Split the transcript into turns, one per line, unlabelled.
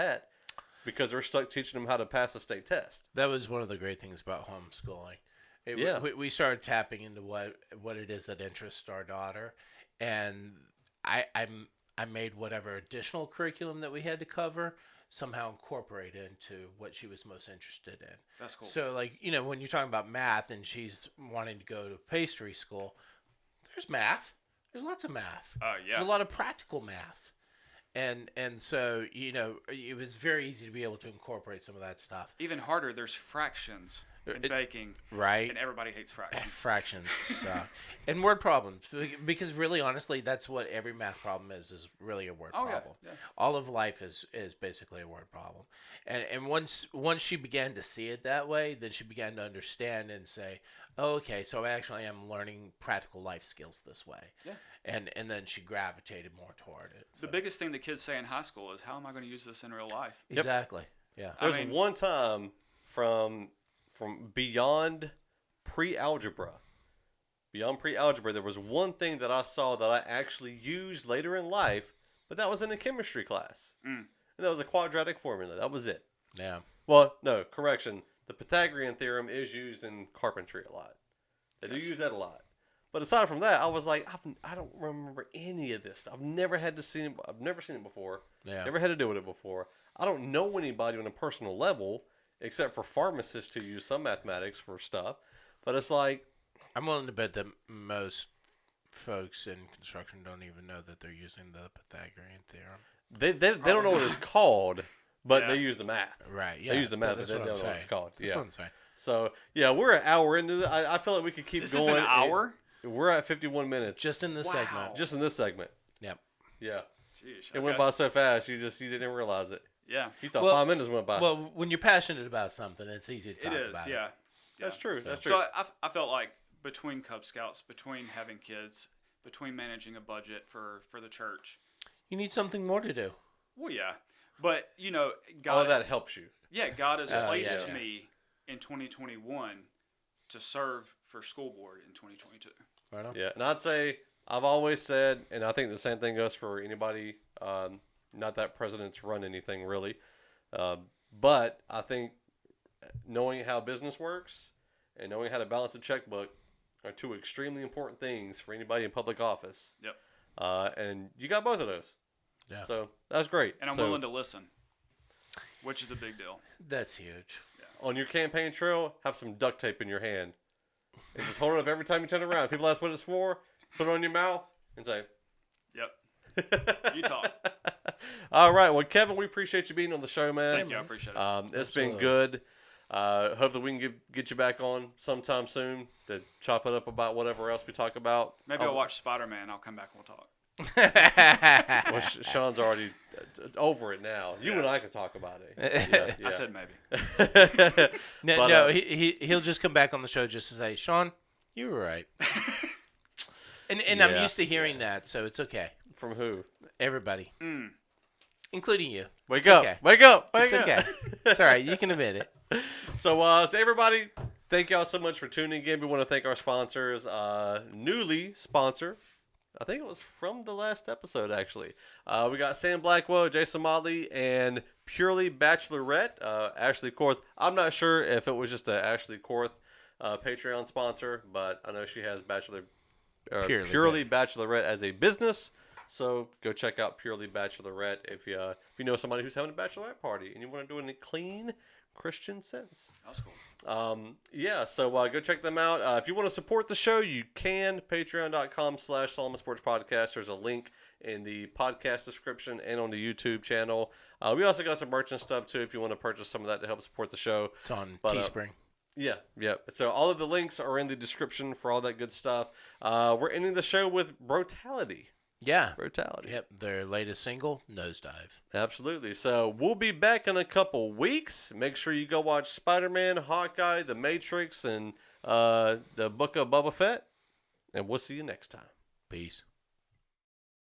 that because they're stuck teaching them how to pass a state test.
That was one of the great things about homeschooling. It,
Yeah.
we, we started tapping into what what it is that interests our daughter, and I I'm I made whatever additional curriculum that we had to cover somehow incorporate into what she was most interested in.
That's cool.
So like you know when you're talking about math and she's wanting to go to pastry school, there's math. There's lots of math.
Oh, yeah.
There's a lot of practical math. And and so, you know, it was very easy to be able to incorporate some of that stuff.
Even harder, there's fractions in
It-
baking,
Right?
and everybody hates fractions.
Fractions suck. and word problems. be- Because really honestly, that's what every math problem is, is really a word
Oh, yeah,
problem.
yeah.
All of life is is basically a word problem. And and once once she began to see it that way, then she began to understand and say, oh, okay, so I actually am learning practical life skills this way.
Yeah.
And and then she gravitated more toward it.
The
So-
biggest thing the kids say in high school is, "How am I going to use this in real life?"
Exactly. Yeah.
I
There's
mean-
one time from from beyond pre-algebra, beyond pre-algebra, there was one thing that I saw that I actually used later in life, but that was in a chemistry class,
Mm.
and that was a quadratic formula. That was it.
Yeah.
Well, no, correction. The Pythagorean theorem is used in carpentry a lot. They do use that a lot. But aside from that, I was like, I've, I don't remember any of this. I've never had to see. I've never seen it before.
Yeah.
Never had to deal with it before. I don't know anybody on a personal level except for pharmacists who use some mathematics for stuff. But it's like,
I'm willing to bet that most folks in construction don't even know that they're using the Pythagorean theorem.
they they, they don't know what it's called, but they
Yeah.
use the math.
Right.
They use the math, they don't know what it's called,
That's
yeah.
what I'm saying.
So yeah, we're an hour into. it. I, I feel like we could keep
This
going.
is an hour.
We're at fifty-one minutes.
Just in this
Wow.
segment.
just in this segment.
Yep.
Yeah.
Jeez,
It went
okay.
by so fast, you just you didn't realize it.
Yeah,
You thought
Well-
five minutes went by.
Well, when you're passionate about something, it's easy to
it
talk
is.
about
Yeah.
it.
that's
Yeah.
true. that's true.
So I, I f- I felt like between Cub Scouts, between having kids, between managing a budget for for the church.
You need something more to do.
Well, yeah, but you know, God,
All of that helps you.
yeah, God has
Oh,
placed
yeah.
me in 2021 to serve for school board in 2022.
Right on.
Yeah, and I'd say I've always said, and I think the same thing goes for anybody. Um, not that presidents run anything really, uh, but I think knowing how business works and knowing how to balance a checkbook are two extremely important things for anybody in public office.
Yep.
Uh, and you got both of those.
Yeah.
So that's great.
And I'm
So-
willing to listen, which is a big deal.
That's huge.
on your campaign trail, have some duct tape in your hand. And just hold it up every time you turn around. People ask what it's for, put it on your mouth, and say,
Yep. You talk.
All right, well, Kevin, we appreciate you being on the show, man.
Thank you. I appreciate it.
Um, it's been
Absolutely.
good. Uh, hopefully, we can get, get you back on sometime soon to chop it up about whatever else we talk about.
Maybe I'll
Oh,
watch Spider Man. I'll come back and we'll talk.
Well, Sh- Sean's already uh, t- over it now. You and I can talk about it. Yeah, yeah.
I said maybe.
No,
But, uh,
no he, he, he'll just come back on the show just to say, Sean, you were right. and and I'm
Yeah. Mm.
used to hearing that, so it's okay.
From who?
Everybody, including you.
Wake
It's
up!
okay.
Wake up! Wake
It's
up!
okay. it's all right. You can admit it.
So, uh, so everybody, thank y'all so much for tuning in. We want to thank our sponsors, uh, newly sponsor. I think it was from the last episode, actually. Uh, we got Sam Blackwell, Jason Motley, and Purely Bachelorette, uh, Ashley Korth. I'm not sure if it was just a Ashley Korth uh, Patreon sponsor, but I know she has Bachelor uh, Purely,
Purely
Bachelorette as a business. So go check out Purely Bachelorette if you uh, if you know somebody who's having a bachelorette party and you want to do it in a clean Christian sense.
That was cool.
Um, yeah, so uh, go check them out. Uh, if you want to support the show, you can. Patreon.com slash Solomon Sports Podcast. There's a link in the podcast description and on the YouTube channel. Uh, we also got some merch and stuff, too, if you want to purchase some of that to help support the show.
It's on
But, uh,
Teespring.
Yeah, yeah. So all of the links are in the description for all that good stuff. Uh, we're ending the show with Brutality.
yeah.
Brutality.
Yep. Their latest single, Nosedive.
Absolutely. So we'll be back in a couple weeks. Make sure you go watch Spider Man, Hawkeye, The Matrix, and uh, the Book of Boba Fett. And we'll see you next time.
Peace.